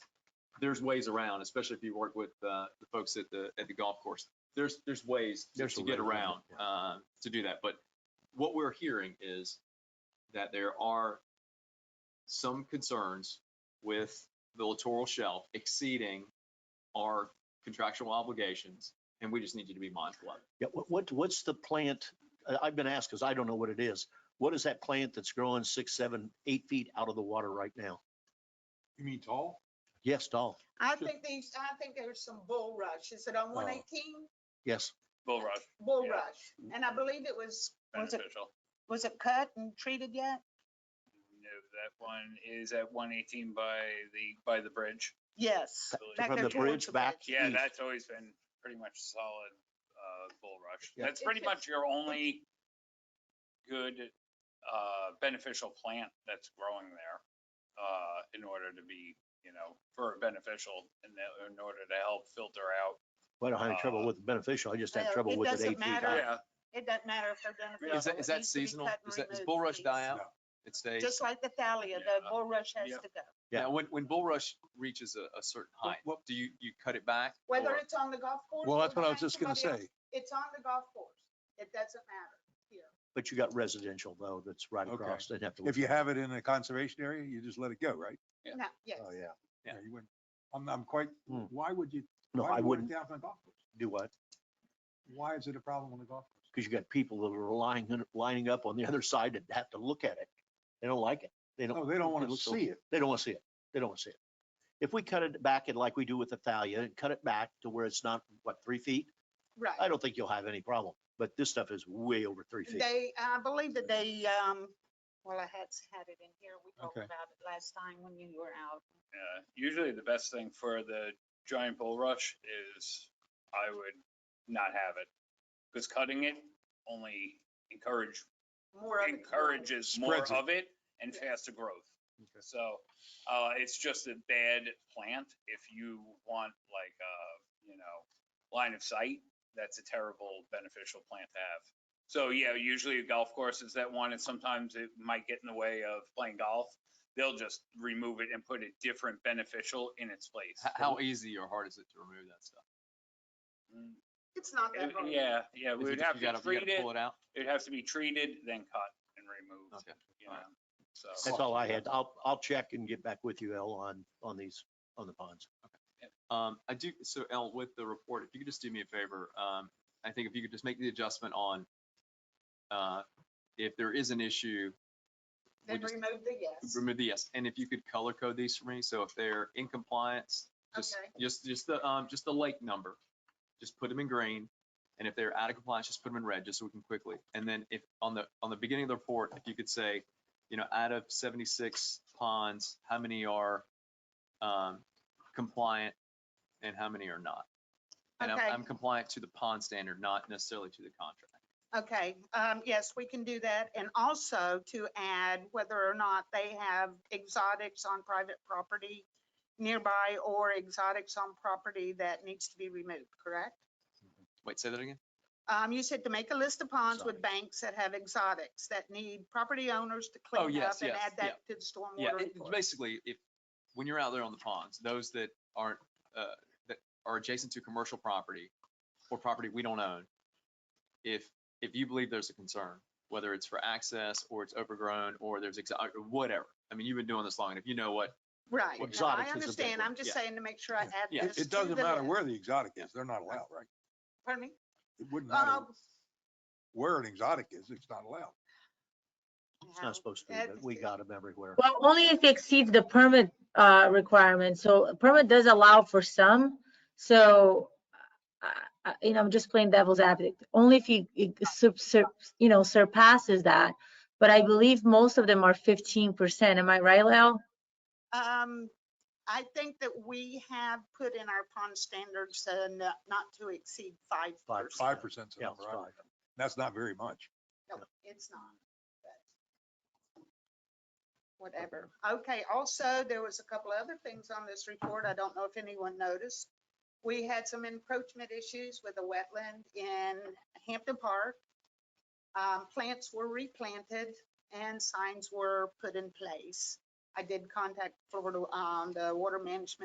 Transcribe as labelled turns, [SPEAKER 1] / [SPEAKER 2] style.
[SPEAKER 1] there's ways around, especially if you work with uh, the folks at the at the golf course. There's there's ways to-
[SPEAKER 2] There's
[SPEAKER 1] to
[SPEAKER 2] a
[SPEAKER 1] get
[SPEAKER 2] way around
[SPEAKER 1] around uh,
[SPEAKER 2] it,
[SPEAKER 1] to do that. But what we're hearing is that there are some concerns with the littoral shelf exceeding our contractual obligations, and we just need you to be mindful of it.
[SPEAKER 2] Yeah, what- what, what's the plant, I- I've been asked, because I don't know what it is. What is that plant that's growing six, seven, eight feet out of the water right now?
[SPEAKER 3] You mean tall?
[SPEAKER 2] Yes, doll,
[SPEAKER 4] I think these, I think there's some bulrush. Is it
[SPEAKER 3] Oh.
[SPEAKER 4] on one eighteen?
[SPEAKER 2] yes.
[SPEAKER 5] Bull rush,
[SPEAKER 4] Bulrush. And I believe it was, was it,
[SPEAKER 5] beneficial.
[SPEAKER 4] was it cut and treated yet?
[SPEAKER 5] No, That one is at one eighteen by the, by the bridge.
[SPEAKER 4] Yes.
[SPEAKER 5] I believe.
[SPEAKER 4] Back
[SPEAKER 2] From
[SPEAKER 4] there
[SPEAKER 2] the
[SPEAKER 4] towards
[SPEAKER 2] bridge
[SPEAKER 4] the
[SPEAKER 2] back.
[SPEAKER 4] bridge.
[SPEAKER 5] Yeah,
[SPEAKER 2] east.
[SPEAKER 5] that's always been pretty much solid, uh, bull rush.
[SPEAKER 2] Yeah.
[SPEAKER 5] That's pretty
[SPEAKER 4] It's just-
[SPEAKER 5] much your only good, uh, beneficial plant that's growing there, uh, in order to be, you know, for beneficial and in order to help filter out.
[SPEAKER 2] Well, I don't have any trouble
[SPEAKER 5] Uh,
[SPEAKER 2] with beneficial. I just have
[SPEAKER 4] well,
[SPEAKER 2] trouble
[SPEAKER 4] it
[SPEAKER 2] with it
[SPEAKER 4] doesn't
[SPEAKER 2] eight feet
[SPEAKER 4] matter.
[SPEAKER 2] high.
[SPEAKER 4] Yeah. It doesn't matter if they're done.
[SPEAKER 1] Is that, is that seasonal? Is that, does bulrush die out? It stays?
[SPEAKER 4] Just like the thalia, the
[SPEAKER 5] Yeah.
[SPEAKER 4] bulrush has
[SPEAKER 5] Yeah.
[SPEAKER 4] to go.
[SPEAKER 2] Yeah.
[SPEAKER 1] Now, when, when bulrush reaches a, a certain height,
[SPEAKER 3] what-
[SPEAKER 1] do you, you cut it back?
[SPEAKER 4] Whether
[SPEAKER 1] or-
[SPEAKER 4] it's on the golf course.
[SPEAKER 3] Well,
[SPEAKER 4] or
[SPEAKER 3] that's what I was
[SPEAKER 4] behind
[SPEAKER 3] just gonna
[SPEAKER 4] somebody
[SPEAKER 3] say.
[SPEAKER 4] else, It's on the golf course. It doesn't matter here.
[SPEAKER 2] But you got residential though, that's right
[SPEAKER 3] Okay.
[SPEAKER 2] across. They'd have to.
[SPEAKER 3] If you have it in a conservation area, you just let it go, right?
[SPEAKER 1] Yeah.
[SPEAKER 4] No, yes.
[SPEAKER 3] Uh,
[SPEAKER 5] Oh,
[SPEAKER 2] yeah.
[SPEAKER 1] Yeah.
[SPEAKER 3] you wouldn't. I'm, I'm quite,
[SPEAKER 2] Hmm.
[SPEAKER 3] why would you?
[SPEAKER 2] No,
[SPEAKER 3] why
[SPEAKER 2] I
[SPEAKER 3] do you want it
[SPEAKER 2] wouldn't
[SPEAKER 3] down on the golf course?
[SPEAKER 2] do what?
[SPEAKER 3] Why is it a problem on the golf course?
[SPEAKER 2] Because you got people that are lining, lining up on the other side that have to look at it. They don't like it. They don't.
[SPEAKER 3] No, they don't
[SPEAKER 2] it
[SPEAKER 3] want to
[SPEAKER 2] looks so-
[SPEAKER 3] see it.
[SPEAKER 2] They don't want to see it. They don't want to see it. If we cut it back and like we do with the thalia and cut it back to where it's not, what, three feet?
[SPEAKER 4] Right.
[SPEAKER 2] I don't think you'll have any problem, but this stuff is way over three feet.
[SPEAKER 4] They, I believe that they, um, well, I had, had it in here. We talked
[SPEAKER 3] Okay.
[SPEAKER 4] about it last time when you were out.
[SPEAKER 5] Yeah, Uh, usually the best thing for the giant bull rush is I would not have it. Because cutting it only encourage,
[SPEAKER 4] More of it.
[SPEAKER 5] encourages more
[SPEAKER 3] Spreads it.
[SPEAKER 5] of it and
[SPEAKER 4] Yeah.
[SPEAKER 5] faster growth.
[SPEAKER 3] Okay.
[SPEAKER 5] So, uh, it's just a bad plant if you want like, uh, you know, line of sight, that's a terrible beneficial plant to have. So, yeah, usually a golf course is that one and sometimes it might get in the way of playing golf. They'll just remove it and put a different beneficial in its place.
[SPEAKER 1] h- How easy or hard is it to remove that stuff?
[SPEAKER 5] Mm,
[SPEAKER 4] It's not that
[SPEAKER 5] uh,
[SPEAKER 4] hard.
[SPEAKER 5] Yeah, yeah,
[SPEAKER 1] Is
[SPEAKER 5] we
[SPEAKER 1] it
[SPEAKER 5] would
[SPEAKER 1] just
[SPEAKER 5] have
[SPEAKER 1] you
[SPEAKER 5] to
[SPEAKER 1] gotta- you
[SPEAKER 5] treat
[SPEAKER 1] gotta
[SPEAKER 5] it,
[SPEAKER 1] Pull it out?
[SPEAKER 5] it'd have to be treated, then cut and removed,
[SPEAKER 1] Okay.
[SPEAKER 5] you know,
[SPEAKER 1] alright.
[SPEAKER 2] That's
[SPEAKER 5] so.
[SPEAKER 2] all I had. I'll, I'll check and get back with you, Al, on, on these, on the ponds.
[SPEAKER 1] Um, I do, so El, with the report, if you could just do me a favor, um, I think if you could just make the adjustment on, uh, if there is an issue,
[SPEAKER 4] Then
[SPEAKER 1] we just-
[SPEAKER 4] remove the yes.
[SPEAKER 1] remove the yes, and if you could color code these for me, so if they're in compliance, just,
[SPEAKER 4] Okay.
[SPEAKER 1] just, just the, um, just the lake number, just put them in green, and if they're out of compliance, just put them in red, just so we can quickly, and then if, on the, on the beginning of the report, if you could say, you know, out of seventy-six ponds, how many are, um, compliant and how many are not? And I'm,
[SPEAKER 4] Okay.
[SPEAKER 1] I'm compliant to the pond standard, not necessarily to the contract.
[SPEAKER 4] Okay, um, yes, we can do that. And also to add whether or not they have exotics on private property nearby or exotics on property that needs to be removed, correct?
[SPEAKER 1] Wait, say that again?
[SPEAKER 4] Um, you said to make a list of ponds with
[SPEAKER 2] Exotics.
[SPEAKER 4] banks that have exotics that need property owners to
[SPEAKER 1] Oh,
[SPEAKER 4] clean up
[SPEAKER 1] yes,
[SPEAKER 4] and
[SPEAKER 1] yes,
[SPEAKER 4] add
[SPEAKER 1] yeah.
[SPEAKER 4] that to the
[SPEAKER 1] Yeah,
[SPEAKER 4] stormwater
[SPEAKER 1] it- it's
[SPEAKER 4] report.
[SPEAKER 1] basically, if, when you're out there on the ponds, those that aren't, uh, that are adjacent to commercial property or property we don't own, if, if you believe there's a concern, whether it's for access or it's overgrown or there's exotic, or whatever. I mean, you've been doing this long and if you know what,
[SPEAKER 4] Right. No,
[SPEAKER 2] exotics is a
[SPEAKER 4] I
[SPEAKER 2] big
[SPEAKER 4] understand.
[SPEAKER 2] one,
[SPEAKER 4] I'm just
[SPEAKER 1] yeah.
[SPEAKER 4] saying to make sure I add
[SPEAKER 1] Yeah,
[SPEAKER 4] this
[SPEAKER 3] It-
[SPEAKER 4] to
[SPEAKER 3] It
[SPEAKER 4] the
[SPEAKER 3] doesn't matter
[SPEAKER 4] list.
[SPEAKER 3] where the exotic is. They're not allowed, right?
[SPEAKER 4] Pardon me?
[SPEAKER 3] It wouldn't matter
[SPEAKER 4] Um,
[SPEAKER 3] where an exotic is. It's not allowed.
[SPEAKER 2] It's not supposed to be, but we got them everywhere.
[SPEAKER 6] Well, only if it exceeds the permit uh, requirement. So a permit does allow for some. So, uh, uh, you know, I'm just playing devil's advocate. Only if you, it sup- sup- you know, surpasses that. But I believe most of them are 15%. Am I right, Lyle?
[SPEAKER 4] Um, I think that we have put in our pond standards uh, n- not to exceed five
[SPEAKER 2] Five-
[SPEAKER 4] percent.
[SPEAKER 3] Five percent's the
[SPEAKER 2] Yeah, it's
[SPEAKER 3] number. I
[SPEAKER 2] fine.
[SPEAKER 3] read. That's not very much.
[SPEAKER 4] No, it's not. but Whatever. Okay, also, there was a couple other things on this report. I don't know if anyone noticed. We had some encroachment issues with a wetland in Hampton Park. Um, plants were replanted and signs were put in place. I did contact Florida, um, the Water Management